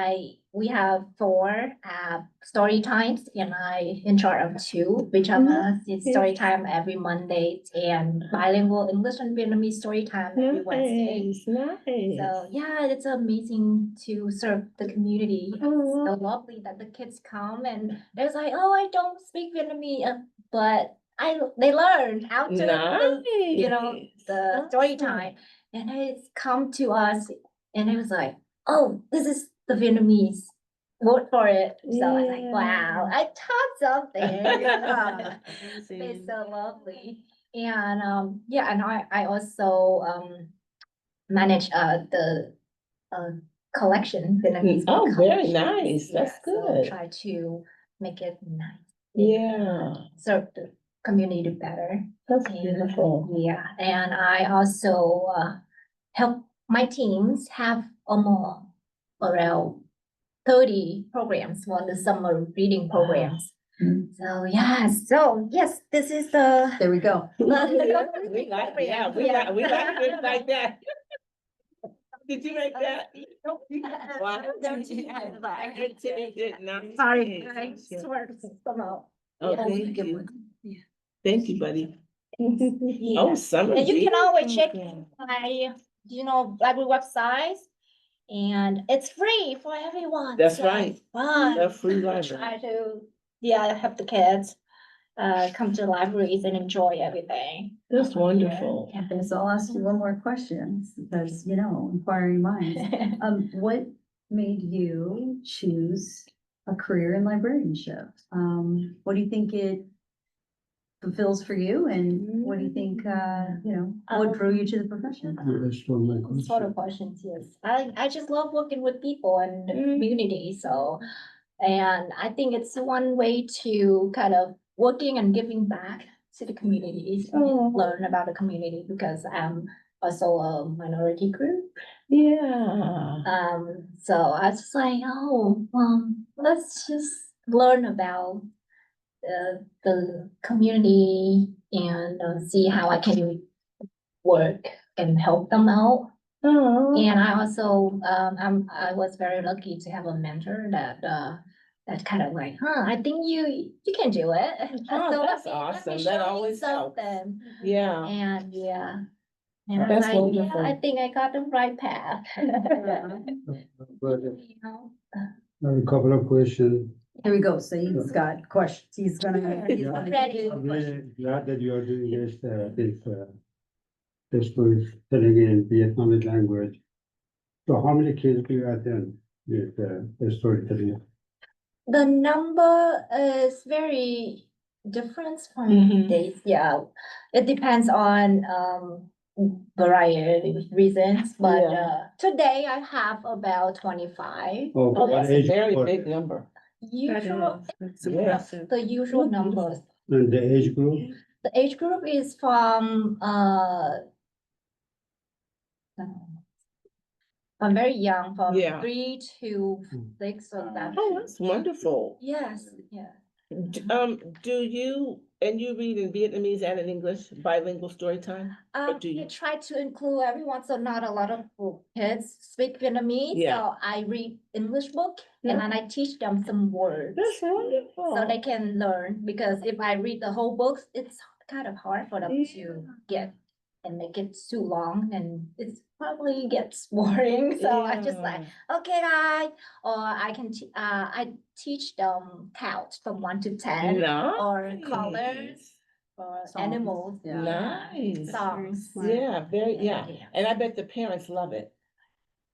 I, we have four uh story times and I in charge of two, which of Mhm. us is story time every Monday and bilingual English and Vietnamese story time every Wednesday. Nice, nice. So yeah, it's amazing to serve the community. Oh, So wow. lovely that the kids come and they're like, oh, I don't speak Vietnamese, uh, but I, they learned how to. the- you know, Nice. the story Awesome. time, and it's come to us, and it was like, oh, this is the Vietnamese. Vote for it. So I was like, wow, I taught something. you know? It's Amazing. uh, so lovely. And um, yeah, and I, I also um manage uh the uh collection Vietnamese. book oh, very collections. nice. That's Yeah, so good. Try to make it nice. Yeah, Serve the community better. that's Yeah. beautiful. Yeah, and I also uh help my teams have almost around thirty programs for the summer reading Wow. programs. Mm. So yeah, so yes, this is the There we go. We like, yeah, we Yeah. like, we like things like that. Did you make that? Wow. Don't you have a I lie? didn't say that, no. sorry, Yes, I yes. sort of somehow. Oh, Yeah. thank you, thank you, buddy. Yeah. Oh, summer. And you reading can always check program. my, you know, library website. And it's free for everyone. That's so right. Fun. The free try library. to, yeah, help the kids uh come to libraries and enjoy everything. That's wonderful. Yeah. Okay, so I'll ask you one more question, because, you know, inquiring minds. Um, what made you choose a career in librarianship? Um, what do you think it fulfills for you and what do you think, uh, you know, Um, what drew you to the profession? That's one of my Those Sort of questions, yes. I I just love working with people and the community, so. And I think it's one way to kind of working and giving back to the communities, Oh. learn about the community because I'm also a minority group. Yeah. Um, so I was just like, oh, um, let's just learn about the, the community and uh, see how I can work and help them out. Oh. And I also, um, I'm, I was very lucky to have a mentor that, uh, that kind of like, huh, I think you, you can do it. Oh, So let that's me- let me awesome. That show you always helps. something." Yeah. And, yeah. And I was That's like, yeah, wonderful. I think I got the right path. But uh, You know? a couple of questions. Here we go. So he's got questions. He's gonna. he's Yeah. gonna Ready. give I'm you a question. really glad that you are doing this, uh, this, uh, this was telling in Vietnamese language. So how many kids do you attend with, uh, the storytelling? The number is very different from Mhm. days, yeah. It depends on um variety of reasons, but Yeah. uh today I have about twenty-five. Or Oh, what that's a age very group? big number. Usual, Yeah. the usual numbers. And the age group, The age group is from uh um, from very young, from Yeah. Hmm. three to Mm. six or that. Oh, that's wonderful. Yes, yeah. D- Um, do you, and you read in Vietnamese and in English bilingual story time? Um, do I you- try to include everyone, so not a lot of w- kids speak Vietnamese, Yeah. so I read English book and then I teach them some words. wonderful. So they can learn, because if I read the whole books, it's kind of hard for them to get and make it too long and it's probably gets boring, so I just like, okay, guys. Or I can, te- uh, I teach them count from one to ten or colors Nice. or Songs, animals. yeah. Nice. Songs. smart. Yeah, very, yeah. Yeah. And I bet the parents love it.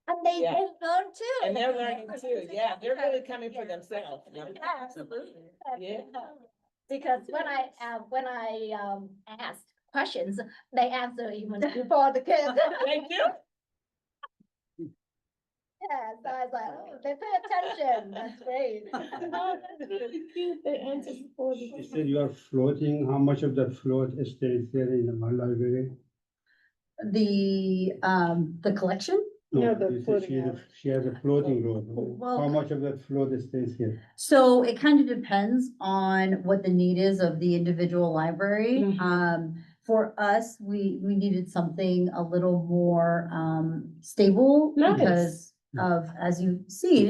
And they, Yeah. they learn too. And they're Yeah, learning that's too. what they Yeah, they're have. really coming for Yeah. themselves. Yeah, Yeah. absolutely. Yeah. Because when I, uh, when I, um, asked questions, they answer even before the kids. They do. Yeah, so I was like, oh, they pay attention, that's great. Oh, that's really cute. They answer before the. you said you are floating, how much of that float stays there in our library? The, um, the collection? No, No, the you said floating she has a- house. She has a floating road. Well- How much of that float stays here? So it kind of depends on what the need is of the individual library. Mhm. Um, for us, we, we needed something a little more, um, stable Nice. because of, as you see,